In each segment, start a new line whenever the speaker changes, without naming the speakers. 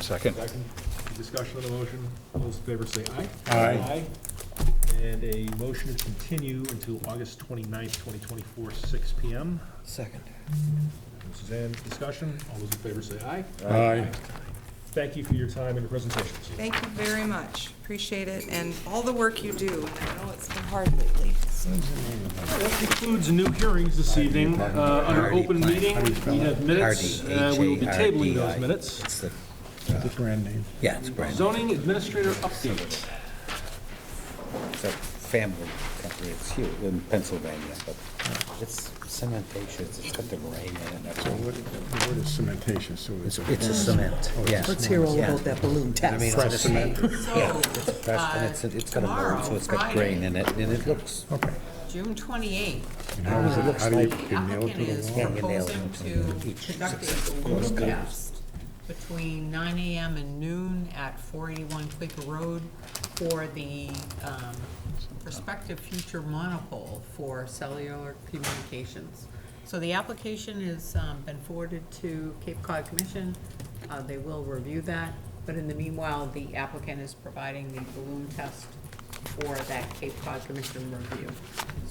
Second.
Second, discussion on the motion, all those in favor say aye.
Aye.
And a motion to continue until August 29th, twenty-four, six P M.
Second.
Suzanne, discussion, all those in favor say aye.
Aye.
Thank you for your time and your presentations.
Thank you very much. Appreciate it and all the work you do. I know it's been hard lately. so-
That concludes new hearings this evening. Uh, Under open meeting, we have minutes.
Hardy,
Uh, We will be tabling those
H-A-R-D-I.
minutes.
It's the,
The brand name.
yeah, it's brand,
Zoning administrator update.
it's a family company, it's huge in Pennsylvania, but it's cementatious, it's got the grain in it, that's all.
What- The word is cementation, so it's.
Oh, It's a cement, yeah.
Let's hear all about that balloon
I mean, it's
test.
a cement,
So,
pressed, and it's, it's got a mold, so it's got grain in it, and it looks,
Okay.
June 28th,
And how does it, how do you,
like
you nail it to
applicant
the
is
wall?
Yeah, you nailed
proposing
it.
to
Each
conduct
success-
a balloon test between 9 AM and noon at 481 Quaker Road for the um, prospective future monopole for cellular communications. So the application has um, been forwarded to Cape Cod Commission. Uh, They will review that, but in the meanwhile, the applicant is providing the balloon test for that Cape Cod Commission review.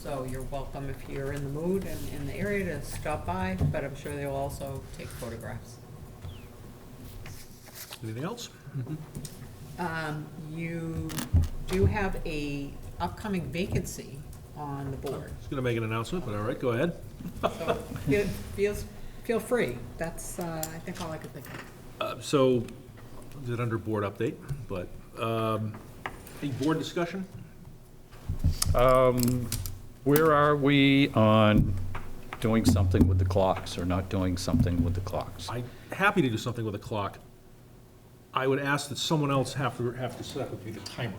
So you're welcome if you're in the mood and in the area to stop by, but I'm sure they'll also take photographs.
Anything else?
Um, You do have a upcoming vacancy on the board,
Just going to make an announcement, but all right, go ahead.
so feel, feels- feel free. That's, uh, I think, all I could think of.
Uh, So, did under board update, but, um, any board discussion?
Where are we on doing something with the clocks or not doing something with the clocks?
I'm happy to do something with a clock. I would ask that someone else have to, have to set up with me the timer.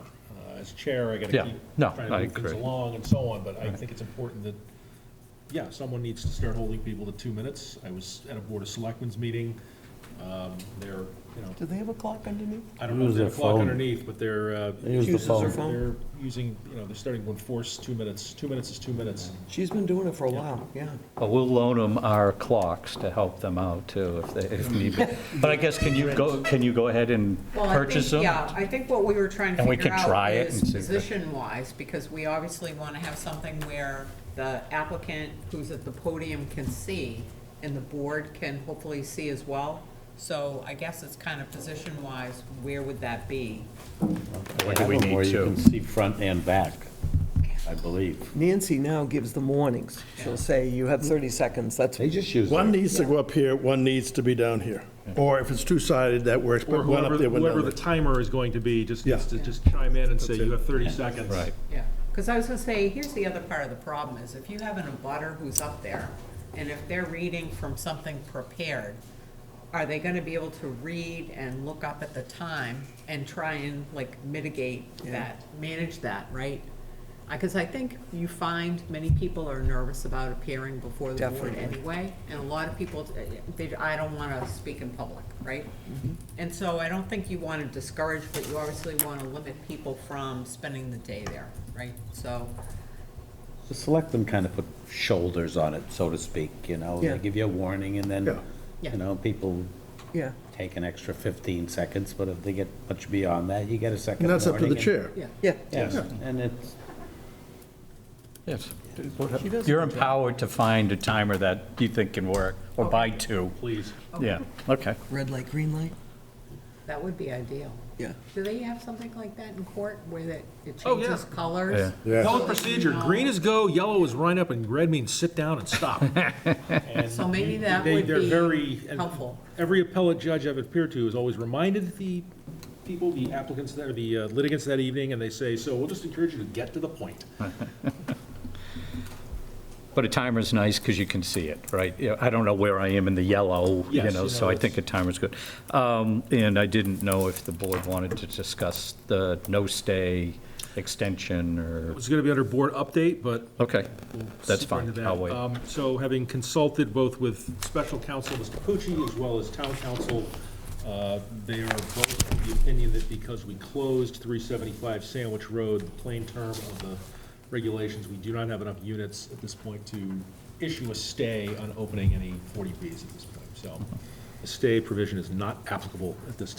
Uh, As chair, I gotta
Yeah,
keep
no,
trying
I
to move things
agree.
along and so on, but I think it's important that, yeah, someone needs to start holding people to two minutes. I was at a Board of Selectmen's meeting, um, they're, you know,
Do they have a clock underneath?
I don't know if
Use
they
their
have a clock
phone.
underneath, but they're, uh,
use the
Uses their phone. phone.
they're using, you know, they're starting to enforce two minutes, two minutes is two minutes.
She's been doing it for a while, yeah.
Well, We'll loan them our clocks to help them out too if they, if need be. But I guess can you go, can you go ahead and
Well, I think-
purchase them?
Yeah, I think what we were trying to
And we
figure
can try
out
it
is
and see if it-
position-wise, because we obviously want to have something where the applicant who's at the podium can see, and the board can hopefully see as well. So I guess it's kind of position-wise, where would that be?
Or do we
Where
need
you
to?
can see front and back, I believe.
Nancy now gives the warnings. She'll say, you have 30 seconds, that's,
they just use,
One needs to go up here, one needs to be down here. Or if it's two-sided, that works, but
Or
one
whoever,
up there, one
whoever
down
the
there.
timer is going to be, just,
Yeah.
just just chime in and say, you have thirty seconds.
Right.
Yeah, because I was gonna say, here's the other part of the problem, is if you have an abutter who's up there, and if they're reading from something prepared, are they gonna be able to read and look up at the time and try and like mitigate that, manage that, right? Because I think you find many people are nervous about appearing before the board
Definitely.
anyway, and a lot of people, uh, they, I don't wanna speak in public, right?
Mm-hmm.
And so I don't think you wanna discourage, but you obviously wanna limit people from spending the day there, right? So,
the selectmen kind of put shoulders on it, so to speak, you know?
Yeah.
They give you a warning, and
Yeah.
then,
Yeah.
you know, people
yeah.
take an extra 15 seconds, but if they get much beyond that, you get a second
And
warning.
that's up to the
and-
chair.
yeah.
Yeah,
Yes, and it's,
Yes.
She does a
You're
good job.
empowered to find a timer that you think can work, or buy two.
Please.
Yeah, okay.
red light, green light,
That would be ideal.
yeah.
Do they have something like that in court where that it
Oh, yeah.
changes colors?
Yeah.
Yeah.
Pellet procedure, green is go, yellow is wind up, and red means sit down and stop. And
So maybe that
they-
would
they're
be
very- and
helpful.
Every appellate judge I've appeared to has always reminded the people, the applicants, that- or the uh, litigants that evening, and they say, so we'll just encourage you to get to the point.
But a timer's nice because you can see it, right? Yeah, I don't know where I am in the yellow, you
Yes,
know,
you
so
know,
I think a timer's good. Um, And I didn't know if the board wanted to discuss the no-stay extension
It
or,
was gonna be under board update, but
okay, that's
Super
fine,
into that.
I'll wait.
Um, So having consulted both with special counsel, Mr. Pucci, as well as town council, uh, they are both of the opinion that because we closed 375 Sandwich Road, the plain term of the regulations, we do not have enough units at this point to issue a stay on opening any 40Bs at this point. So a stay provision is not applicable at this time.